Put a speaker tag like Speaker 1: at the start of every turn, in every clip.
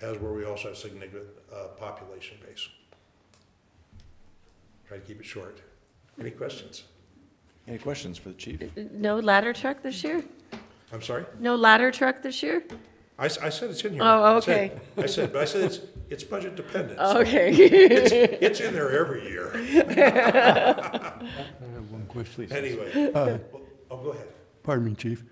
Speaker 1: as where we also have significant uh, population base. Try to keep it short. Any questions?
Speaker 2: Any questions for the chief?
Speaker 3: No ladder truck this year?
Speaker 1: I'm sorry?
Speaker 3: No ladder truck this year?
Speaker 1: I, s- I said it's in here.
Speaker 3: Oh,
Speaker 1: I said- I said, but I said it's, it's budget dependent. so
Speaker 3: Okay.
Speaker 1: It's, it's in there every year.
Speaker 4: I have one question. Uh,
Speaker 1: Anyway, Well, oh, go ahead.
Speaker 4: Pardon me, Chief.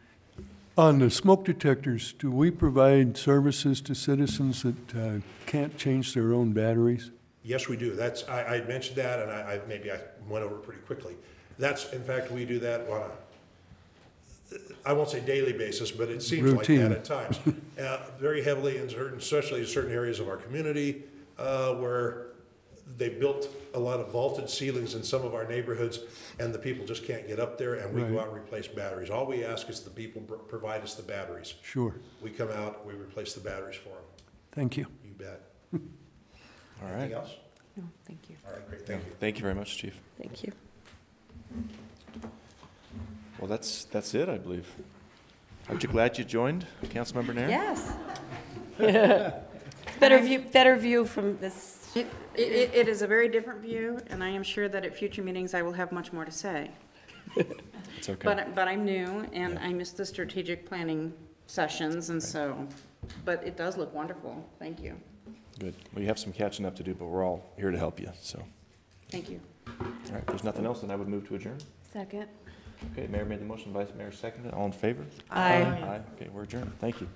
Speaker 4: On the smoke detectors, do we provide services to citizens that uh, can't change their own batteries?
Speaker 1: Yes, we do. That's, I, I mentioned that and I, I, maybe I went over it pretty quickly. That's, in fact, we do that on a, I won't say daily basis, but it seems like that
Speaker 4: Routine.
Speaker 1: at times. Uh, very heavily in certain, especially in certain areas of our community, uh, where they built a lot of vaulted ceilings in some of our neighborhoods and the people just can't get up there and we go
Speaker 4: Right.
Speaker 1: out and replace batteries. All we ask is the people pro- provide us the batteries.
Speaker 4: Sure.
Speaker 1: We come out, we replace the batteries for them.
Speaker 4: Thank you.
Speaker 1: You bet.
Speaker 2: All right.
Speaker 1: Anything else?
Speaker 3: No, thank you.
Speaker 1: All right, great, thank you.
Speaker 2: Thank you very much, chief.
Speaker 3: Thank you.
Speaker 2: Well, that's, that's it, I believe. Aren't you glad you joined, Councilmember Nair?
Speaker 5: Yes.
Speaker 3: Better view, better view from this.
Speaker 5: It, it, it is a very different view, and I am sure that at future meetings I will have much more to say.
Speaker 2: It's okay.
Speaker 5: But, but I'm new, and I missed the strategic planning sessions, and so, but it does look wonderful. Thank you.
Speaker 2: Good. We have some catching up to do, but we're all here to help you, so.
Speaker 5: Thank you.
Speaker 2: All right, if there's nothing else, then I would move to adjourn.
Speaker 3: Second.
Speaker 2: Okay, Mayor made the motion, Vice Mayor seconded. All in favor?
Speaker 3: Aye.
Speaker 2: Aye. Okay, we're adjourned. Thank you.